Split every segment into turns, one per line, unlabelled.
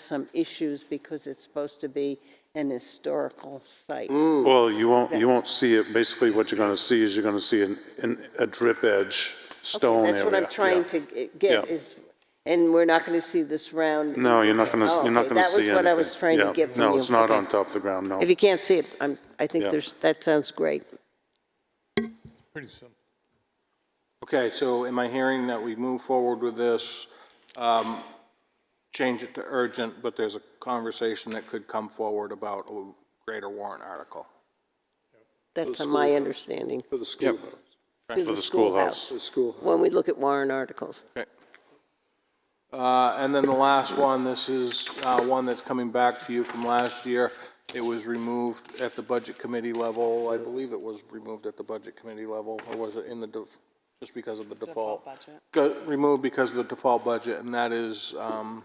some issues because it's supposed to be an historical site.
Well, you won't, you won't see it, basically what you're going to see is you're going to see an- an, a drip edge stone area.
That's what I'm trying to g- get
Yeah.
is, and we're not going to see this round.
No, you're not going to,
Oh,
you're not
okay,
going to see
That was what I was
anything.
trying to
Yeah.
get from you.
No, it's not
Okay.
on top of the ground, no.
If you can't see it, I'm, I think
Yeah.
there's, that sounds great.
Pretty simple.
Okay, so am I hearing that we move forward with this, um, change it to urgent, but there's a conversation that could come forward about a greater warrant article?
That's my understanding.
For the schoolhouse,
To
For the schoolhouse.
the schoolhouse.
When we look at warrant articles.
Okay. Uh, And then the last one, this is uh, one that's coming back to you from last year. It was removed at the Budget Committee level. I believe it was removed at the Budget Committee level, or was it in the, def- just because of the default? Go- Removed because of the default budget, and that is um,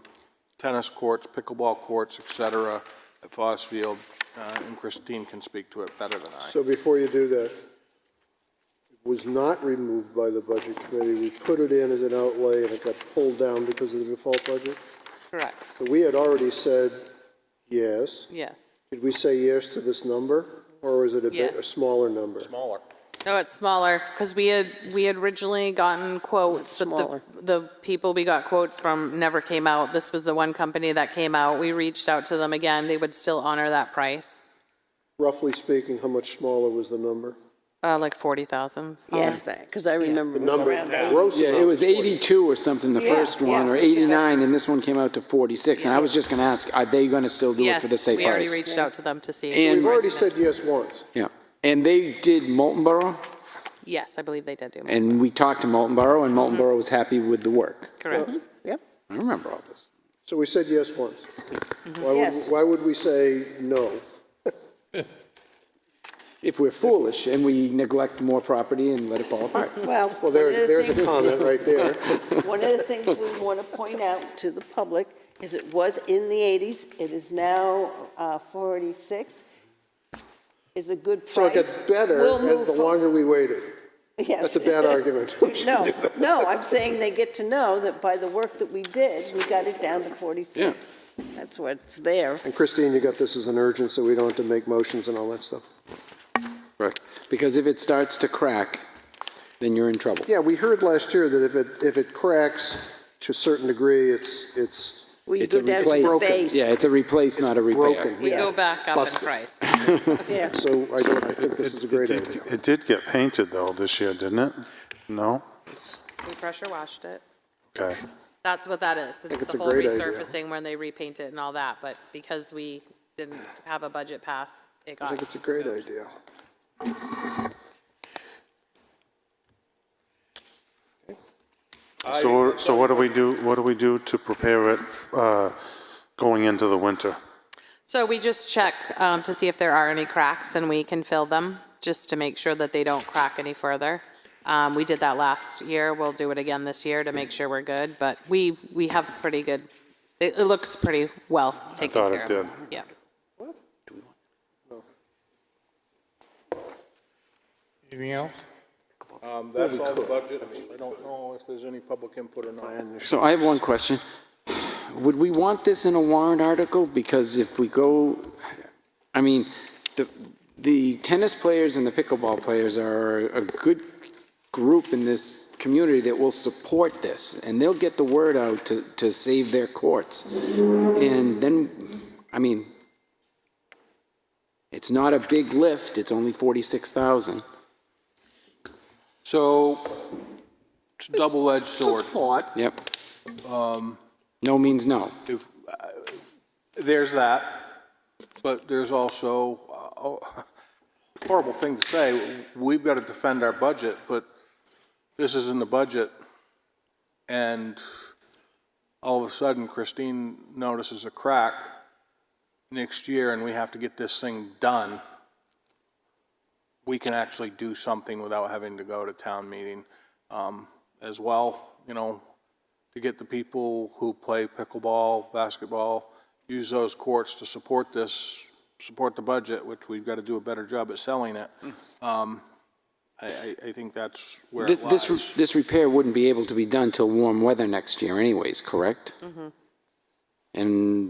tennis courts, pickleball courts, et cetera, at Foss Field, uh, and Christine can speak to it better than I.
So before you do that, it was not removed by the budget committee. We put it in as an outlay and it got pulled down because of the default budget.
Correct,
But we had already said yes.
yes.
Did we say yes to this number? Or was it a bit,
Yes.
a smaller number?
Smaller.
No, it's smaller, because we had, we had originally gotten quotes, but
Smaller.
the, the people we got quotes from never came out. This was the one company that came out. We reached out to them again. They would still honor that price,
Roughly speaking, how much smaller was the number?
uh, like 40,000. smaller.
Yes, that, because I remember.
Number, gross
Yeah, it
number.
was 82 or something, the first one, or 89, and this one came out to 46. And I was just going to ask, are they going to still do it
Yes,
for the same
we already
price?
reached out to them to see.
And,
We've already said yes once.
yeah, and they did Molten Borough,
Yes, I believe they did do, it.
and we talked to Molten Borough,
Mm-hmm.
and Molten Borough was happy with the work.
correct.
Yep.
I remember all this.
So we said yes once. Why would,
Mm-hmm. Yes.
why would we say no?
If we're foolish and we neglect more property and let it fall apart.
Well,
Well,
one of the
there, there's
things-
a comment right there.
One of the things we want to point out to the public is it was in the 80s, it is now uh, 46, is a good price.
So it gets better
We'll
as
move
the
fo-
longer we waited.
Yes.
That's a bad argument. We shouldn't
No,
do that.
no, I'm saying they get to know that by the work that we did, we got it down to 46. That's what's there.
And Christine, you got this as an urgent, so we don't have to make motions and all that stuff.
Right. Because if it starts to crack, then you're in trouble.
Yeah, we heard last year that if it, if it cracks to a certain degree, it's, it's
We
It's
go
a
down
replace.
to the base.
Yeah, it's a replace, not a repair.
broken.
We
Yeah.
go back up in
Busted.
price.
Yeah.
So I don't, I think this is a great
It did-
idea.
It did get painted though this year, didn't it? No?
We pressure washed it.
Okay.
That's what that is. It's
it's
the
a
whole
great idea.
resurfacing when they repaint it and all that, but because we didn't have a budget pass, it
I
got.
think it's a great idea.
So, we're- so what do we do, what do we do to prepare it, uh, going into the winter?
So we just check um, to see if there are any cracks and we can fill them, just to make sure that they don't crack any further. Um, We did that last year, we'll do it again this year to make sure we're good, but we, we have pretty good, it it looks pretty well taken care
thought
of.
it did.
Yeah.
Anything else?
Um, That's all the budget. I don't know if there's any public input or not.
So I have one question. Would we want this in a warrant article? Because if we go, I mean, the, the tennis players and the pickleball players are a good group in this community that will support this, and they'll get the word out to, to save their courts. And then, I mean, it's not a big lift, it's only 46,000.
So, it's a double-edged sword.
Yep. No means no.
If, uh, There's that, but there's also, uh, oh, horrible thing to say, we've got to defend our budget, but this is in the budget, and all of a sudden Christine notices a crack next year, and we have to get this thing done. We can actually do something without having to go to town meeting um, as well, you know, to get the people who play pickleball, basketball, use those courts to support this, support the budget, which we've got to do a better job at selling it. Um, I, I, I think that's where
This,
it lies.
this, this repair
Mm-hmm.
wouldn't be able to be done till warm weather next year anyways, correct? And